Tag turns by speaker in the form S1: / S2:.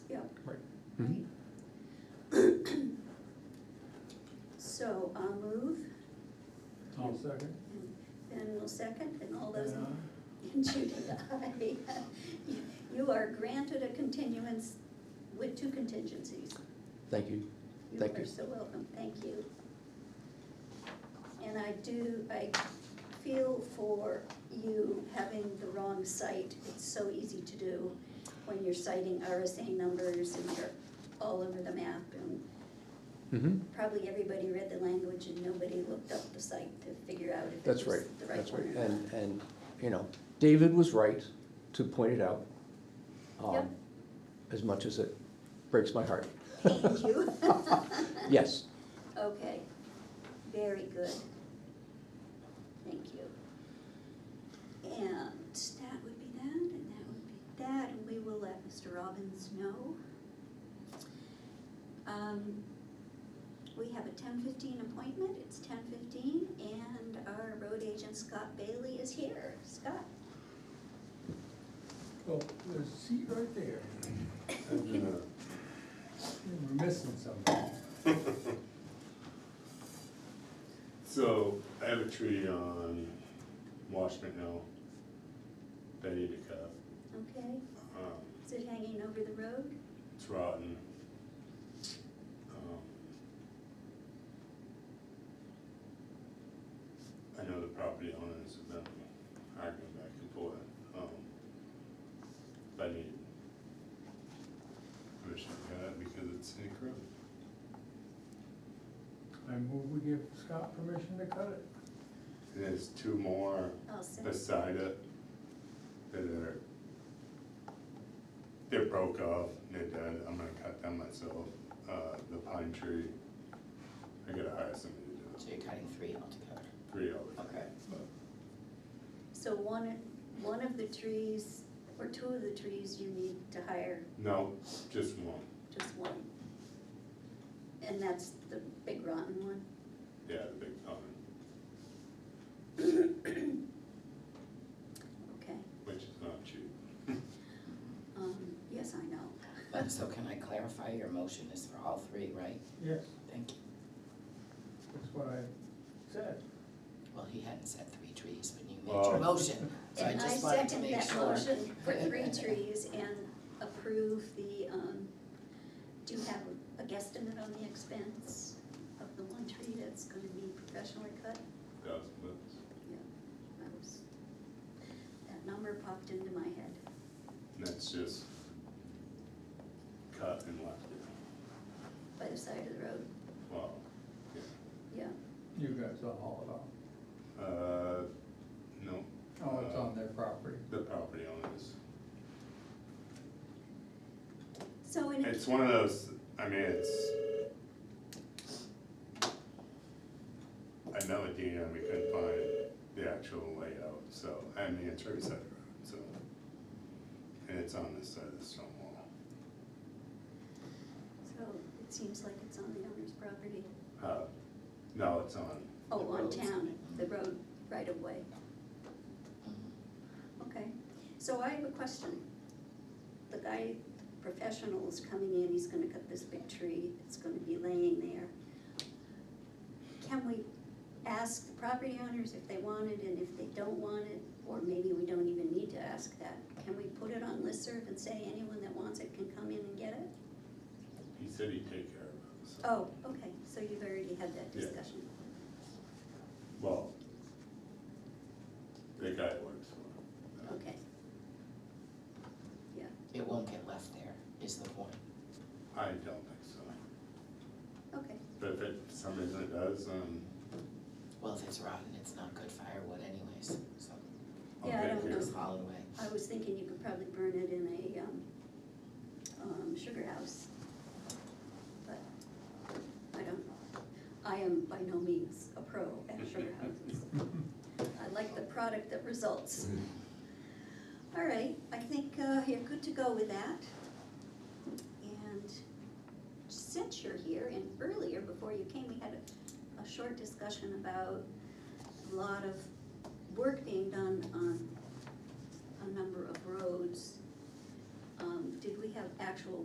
S1: I'll move,
S2: I'll second. uh,
S1: Ben will second, and all those, and Judy, aye. You- You are granted a continuance with two contingencies.
S3: Thank you.
S1: You
S3: Thank you.
S1: are so welcome, thank you. And I do, I feel for you having the wrong site, it's so easy to do when you're citing RSA numbers and you're all over the map and
S3: Mm-hmm.
S1: probably everybody read the language and nobody looked up the site to figure out if
S3: That's
S1: it
S3: right,
S1: was the right
S3: that's right.
S1: one or not.
S3: And, and, you know, David was right to point it out. um,
S1: Yep.
S3: As much as it breaks my heart.
S1: Thank you.
S3: Yes,
S1: Okay, very good. Thank you. And that would be that, and that would be that, and we will let Mr. Robbins know. Um, We have a ten fifteen appointment, it's ten fifteen, and our road agent Scott Bailey is here. Scott?
S2: Well, oh, there's a seat right there. And We're missing something.
S4: So I have a tree on Washburn Hill that I need to cut.
S1: Okay,
S4: Um,
S1: is it hanging over the road?
S4: It's rotten. Um, I know the property owners have been arguing back and forth. um, But I need permission to cut it because it's in a road.
S2: I move we give Scott permission to cut it.
S4: There's two more
S1: I'll send,
S4: beside it that are, they're broke off, they're dead, I'm gonna cut them myself, uh, the pine tree. I gotta hire somebody to
S5: So
S4: do
S5: you're cutting three altogether,
S4: it, three all the time.
S5: okay.
S1: so one, one of the trees, or two of the trees you need to hire
S4: No, just one,
S1: Just one. And that's the big rotten one.
S4: yeah, the big pine,
S1: Okay,
S4: which is not cheap.
S1: um, yes, I know.
S5: But so can I clarify, your motion is for all three, right?
S2: Yes,
S5: Thank you.
S2: that's what I said.
S5: Well, he hadn't said three trees when you made your
S4: Well-
S5: motion, so I
S1: And I
S5: just wanted to
S1: second
S5: make
S1: that
S5: sure.
S1: motion for three trees and approve the, um, do you have a guesstimate on the expense of the one tree that's gonna be professionally cut?
S4: Thousand bucks.
S1: Yeah, that was, that number popped into my head.
S4: And that's just cut and left it,
S1: By the side of the road,
S4: wow,
S1: yeah.
S2: You guys will haul
S4: uh, no,
S2: it off. Oh, it's on their property.
S4: the property owners.
S1: So in,
S4: It's one of those, I mean, it's. I know a deed and we couldn't find the actual layout, so, I mean, it's right beside the road, so. And it's on this side of the stone wall.
S1: so it seems like it's on the owner's property.
S4: Uh, no, it's on,
S1: Oh,
S5: The
S1: on
S5: roads.
S1: town, the road right of way,
S5: Mm-hmm.
S1: okay. So I have a question. The guy, the professional is coming in, he's gonna cut this big tree, it's gonna be laying there. Can we ask the property owners if they want it and if they don't want it, or maybe we don't even need to ask that? Can we put it on listserv and say anyone that wants it can come in and get it?
S4: he said he'd take care of it, so.
S1: Oh, okay, so you've already had that
S4: Yeah.
S1: discussion.
S4: Well. The guy works for him.
S1: Okay,
S5: It won't get left there, is the point.
S4: I don't think so,
S1: okay,
S4: but if it, for some reason it does, um,
S5: Well, if it's rotten, it's not good firewood anyways, so
S4: I'll
S1: Yeah, I
S4: take
S1: don't
S4: care of
S1: know.
S4: it.
S5: just haul it away.
S1: I was thinking you could probably burn it in a, um, um, sugar house. But, I don't, I am by no means a pro at sugar houses. I like the product that results. All right, I think, uh, you're good to go with that. And since you're here, and earlier, before you came, we had a, a short discussion about a lot of work being done on a number of roads. Um, did we have actual